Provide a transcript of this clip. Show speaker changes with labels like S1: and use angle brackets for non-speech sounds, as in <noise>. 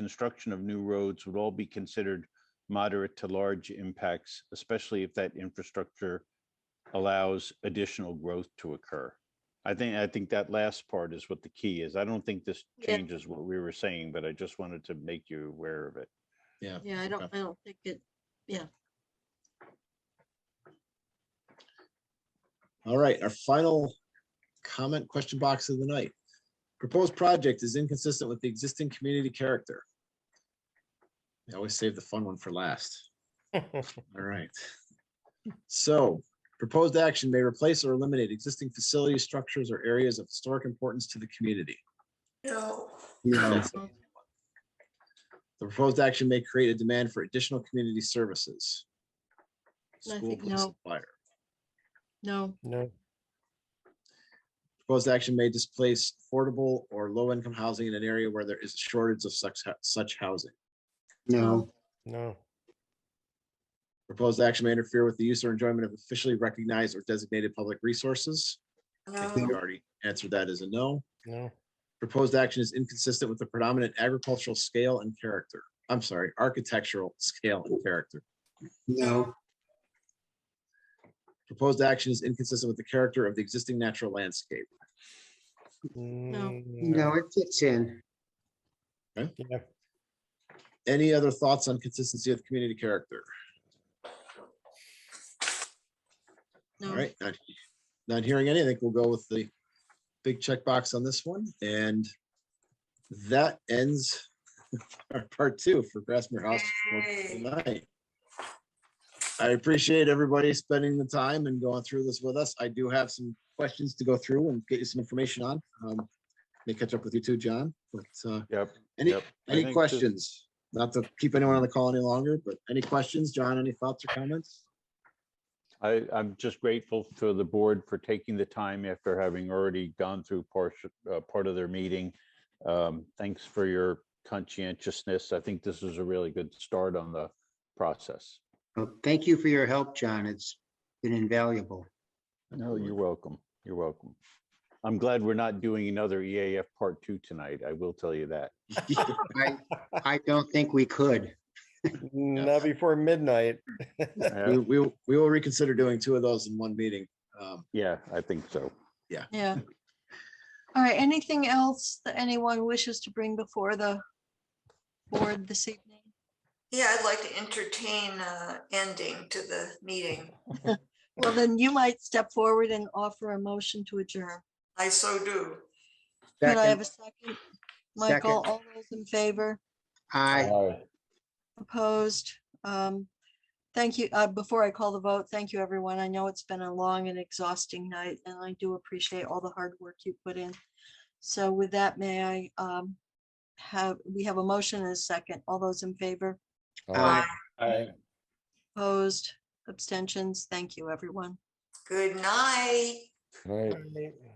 S1: construction of new roads would all be considered moderate to large impacts, especially if that infrastructure allows additional growth to occur. I think, I think that last part is what the key is. I don't think this
S2: Yeah.
S1: changes what we were saying, but I just wanted to make you aware of it.
S3: Yeah.
S2: Yeah, I don't,
S3: Okay.
S2: I don't think it,
S3: All right, our final comment question box of the night. Proposed project is inconsistent with the existing community character. I always save the fun one for last. All right. So proposed action may replace or eliminate existing facilities, structures, or areas of historic importance to the community. No.
S2: No.
S3: The proposed action may create a demand for additional community services.
S2: I
S3: School,
S2: think
S3: police, and
S2: no.
S3: fire.
S2: no,
S4: No,
S3: Proposed action may displace affordable or low-income housing in an area where there is a shortage of such, hou- such housing.
S2: no,
S4: no,
S3: Proposed action may interfere with the use or enjoyment of officially recognized or designated public resources. I think we already answered that as a no.
S4: no,
S3: Proposed action is inconsistent with the predominant agricultural scale and character. I'm sorry, architectural scale and character.
S5: No,
S3: Proposed action is inconsistent with the character of the existing natural landscape.
S4: mm,
S5: no, it fits in.
S4: Yeah,
S3: Any other thoughts on consistency of community character? All
S2: no.
S3: right, not, not hearing anything, we'll go with the big checkbox on this one, and that ends <laughs> our part two for Grassmere House for tonight. I appreciate everybody spending the time and going through this with us. I do have some questions to go through and get you some information on. Um, May catch up with you too, John, but uh,
S1: Yep.
S3: any,
S1: yep. I
S3: any
S1: think this-
S3: questions? Not to keep anyone on the call any longer, but any questions, John, any thoughts or
S1: <laughs>
S3: comments?
S1: I, I'm just grateful to the board for taking the time after having already gone through part, uh, part of their meeting. Um, Thanks for your conscientiousness. I think this is a really good start on the process.
S5: Well, Thank you for your help, John. It's been invaluable.
S1: No, you're welcome. You're welcome. I'm glad we're not doing another EAF part two tonight. I will tell you that.
S5: I, I don't think we could.
S4: not before midnight. <laughs>
S3: We,
S1: Uh,
S3: we, will- we will reconsider doing two of those in one meeting. Um,
S1: Yeah, I think so.
S2: Yeah. All right, anything else that anyone wishes to bring before the board this evening?
S6: Yeah, I'd like to entertain uh ending to the meeting.
S2: Well, then you might step forward and offer a motion to adjourn.
S6: I so do.
S2: Could I have
S5: Second,
S2: a second? Michael,
S5: Second.
S2: all those in favor,
S5: Aye.
S2: opposed? Um, Thank you. Uh, Before I call the vote, thank you, everyone. I know it's been a long and exhausting night, and I do appreciate all the hard work you put in. So with that, may I um, have, we have a motion and a second. All those in favor?
S5: Aye.
S2: Opposed, abstentions. Thank you, everyone.
S6: Good night.
S4: Right.
S5: Aye.